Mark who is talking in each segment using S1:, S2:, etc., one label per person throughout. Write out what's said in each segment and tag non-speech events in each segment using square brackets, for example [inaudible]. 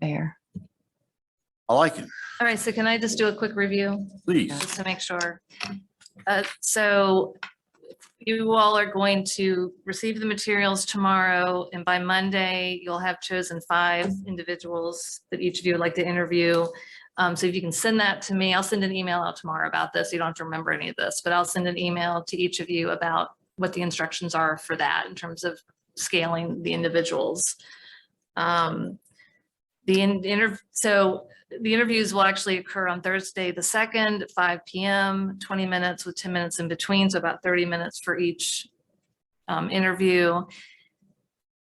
S1: fair.
S2: I like it.
S3: All right, so can I just do a quick review?
S2: Please.
S3: just to make sure. Uh, So you all are going to receive the materials tomorrow, and by Monday, you'll have chosen five individuals that each of you would like to interview. Um, So if you can send that to me, I'll send an email out tomorrow about this. You don't have to remember any of this, but I'll send an email to each of you about what the instructions are for that in terms of scaling the individuals. Um, The in- interv, so the interviews will actually occur on Thursday, the second, five PM, twenty minutes with ten minutes in between, so about thirty minutes for each um, interview.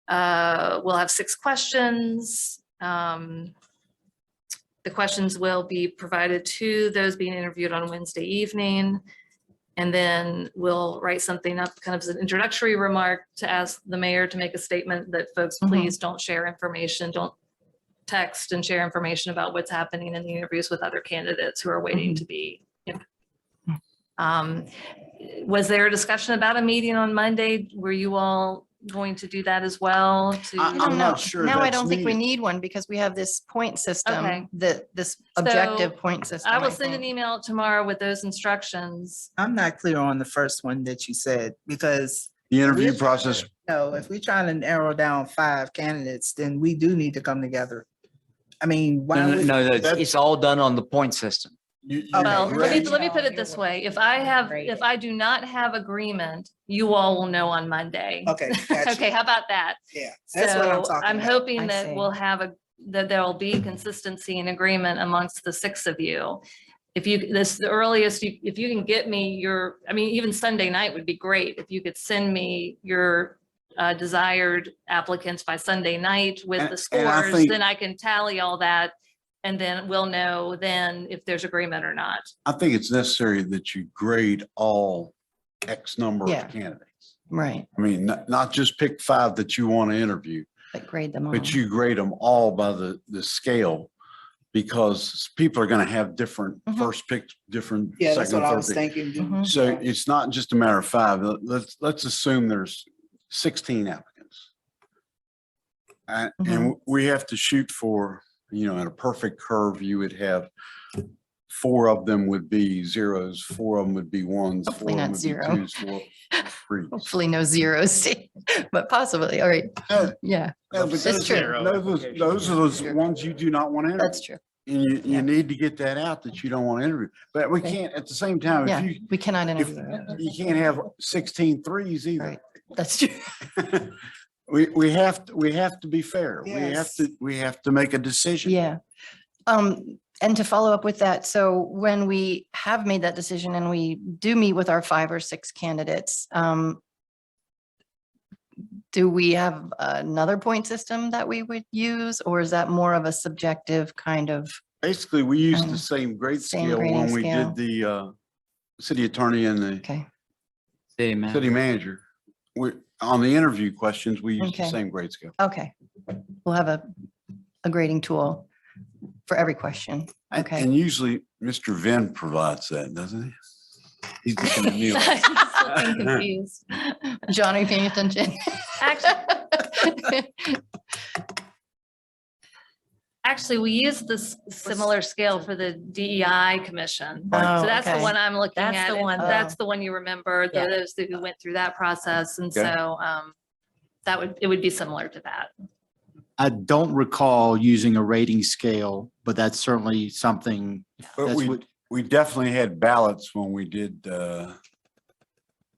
S3: Uh, we'll have six questions. Um, the questions will be provided to those being interviewed on Wednesday evening. And then we'll write something up, kind of as an introductory remark to ask the mayor to make a statement that folks,
S1: Mhm.
S3: please don't share information, don't text and share information about what's happening in the interviews with other candidates who are waiting to be. you know. Um, Was there a discussion about a meeting on Monday? Were you all going to do that as well? to-
S2: I- I'm
S1: I
S4: um,
S1: don't
S2: not
S1: know.
S2: sure
S1: Now I
S2: that's
S1: don't think we
S2: needed.
S1: need one because we have this point
S3: Okay.
S1: system, that this objective point system.
S3: I will send an e-
S1: think.
S3: email tomorrow with those instructions.
S4: I'm not clear on the first one that you said, because,
S2: The interview
S4: We're-
S2: process,
S4: no, if we're trying to narrow down five candidates, then we do need to come together. I mean, why
S5: No, no,
S4: would, Oh,
S5: no, no, it's-
S2: That's-
S5: it's all done on the point system.
S2: you, you-
S4: Okay.
S3: Well, let me,
S2: Greg,
S4: Right.
S3: let me put it this way. If I have, if I do not have agreement, you all will know on Monday.
S4: okay, gotcha,
S3: [laughs] Okay, how about that?
S4: yeah, that's what I'm
S3: So
S4: talking
S3: I'm
S4: about.
S1: I
S3: hoping that
S1: see.
S3: we'll have a, that there'll be consistency and agreement amongst the six of you. If you, this, the earliest, you if you can get me your, I mean, even Sunday night would be great. If you could send me your uh, desired applicants by Sunday night with the
S2: And- and I
S3: scores,
S2: think-
S3: then I can tally all that. And then we'll know then if there's agreement or not.
S2: I think it's necessary that you grade all X number
S1: Yeah.
S2: of candidates.
S1: Right,
S2: I mean, not, not just pick five that you want to interview,
S1: but grade them all.
S4: Mm-hmm.
S2: but you grade them all by the, the scale. Because people are going to have different
S1: Mhm.
S2: first picks, different.
S4: Mm-hmm. Yeah, that's
S2: second,
S4: what I
S2: third
S4: was
S2: pick.
S4: thinking. Do-
S3: Mm-hmm.
S1: Mhm.
S2: So it's not just a matter of five. Let- Let's, let's assume there's sixteen applicants. And,
S1: Mm-hmm.
S2: and we have to shoot for, you know, in a perfect curve, you would have four of them would be zeros, four of them would be ones. four
S1: Hopefully
S2: of them
S1: not
S2: would be
S1: zero.
S2: twos, four threes.
S1: [laughs] Hopefully no zeros, [laughs] but possibly, all right,
S2: No,
S1: yeah,
S2: no, but
S1: It's
S2: those-
S1: true.
S2: Those, are- those are those
S1: Zero.
S2: ones you do not want to interview.
S1: that's true.
S2: And you,
S1: Yeah.
S2: you need to get that out that you don't want to interview. But we
S1: Okay.
S2: can't, at the same time,
S1: Yeah.
S2: if you,
S1: We cannot
S2: if,
S1: interview, them.
S2: you can't have 16 threes either.
S1: Right. that's true.
S2: We, we have, to we have to be fair. We have
S4: Yes.
S2: to, we have to make a decision.
S1: Yeah. Um, and to follow up with that, so when we have made that decision and we do meet with our five or six candidates, um, do we have another point system that we would use, or is that more of a subjective kind of?
S2: Basically, we used
S1: Um,
S2: the same grade
S1: same
S2: scale when
S1: grading
S2: we
S1: scale.
S2: did the, uh, city attorney and the
S1: Okay,
S5: City manager.
S2: city manager. We, on the interview questions, we used the
S1: Okay.
S2: same grade scale.
S1: okay. We'll have a, a grading tool for every question.
S2: And-
S1: Okay.
S2: And usually Mr. Venn provides that, doesn't he? He's looking
S1: [laughs]
S2: at me like,
S3: [laughs] I'm just looking confused.
S1: John, are you paying attention? [laughs]
S3: [laughs] Actually, we use this similar scale for the DEI commission.
S1: Oh,
S3: So that's the
S1: okay.
S3: one I'm looking at.
S6: That's the
S3: and
S6: one that- Oh,
S3: That's the one you remember,
S6: Yeah.
S3: those that who went through that process. And
S2: Okay.
S3: so um, that would, it would be similar to that.
S7: I don't recall using a rating scale, but that's certainly something
S2: But
S7: that's
S2: we,
S7: what,
S2: we definitely had ballots when we did, uh,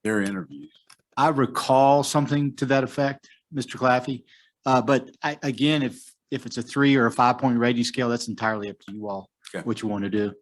S2: their interviews.
S7: I recall something to that effect, Mr. Claffey. Uh, but I, again, if, if it's a three or a five point rating scale, that's entirely up to you all,
S2: Okay.
S7: what you want to do.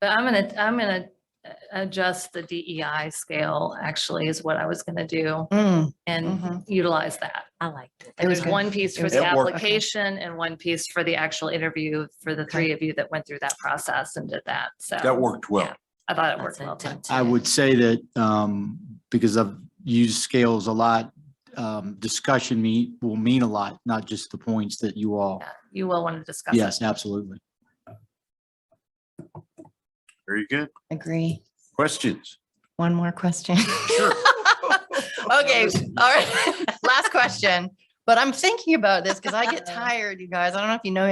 S3: But I'm gonna, I'm gonna uh, adjust the DEI scale actually is what I was gonna do
S1: Mm,
S3: and
S1: Mhm.
S3: utilize that.
S6: Mm-hmm. I liked it.
S1: It was
S3: There's
S1: good.
S3: one piece
S1: It
S3: for
S1: was
S3: the
S2: good. It worked.
S3: application and one piece for the actual interview for the three of you that went through that process and did that. So.
S2: That worked well.
S3: I thought it
S6: That's
S3: worked well.
S6: intense.
S7: I would say that, um, because I've used scales a lot, um, discussion me, will mean a lot, not just the points that you all.
S3: Yeah, You will want to discuss. it.
S7: Yes, absolutely.
S2: Very good.
S1: Agree.
S2: Questions?
S1: One more question. [laughs] Okay, [laughs] all right. Last question. But I'm thinking about this because I get tired, you guys. I don't know if you know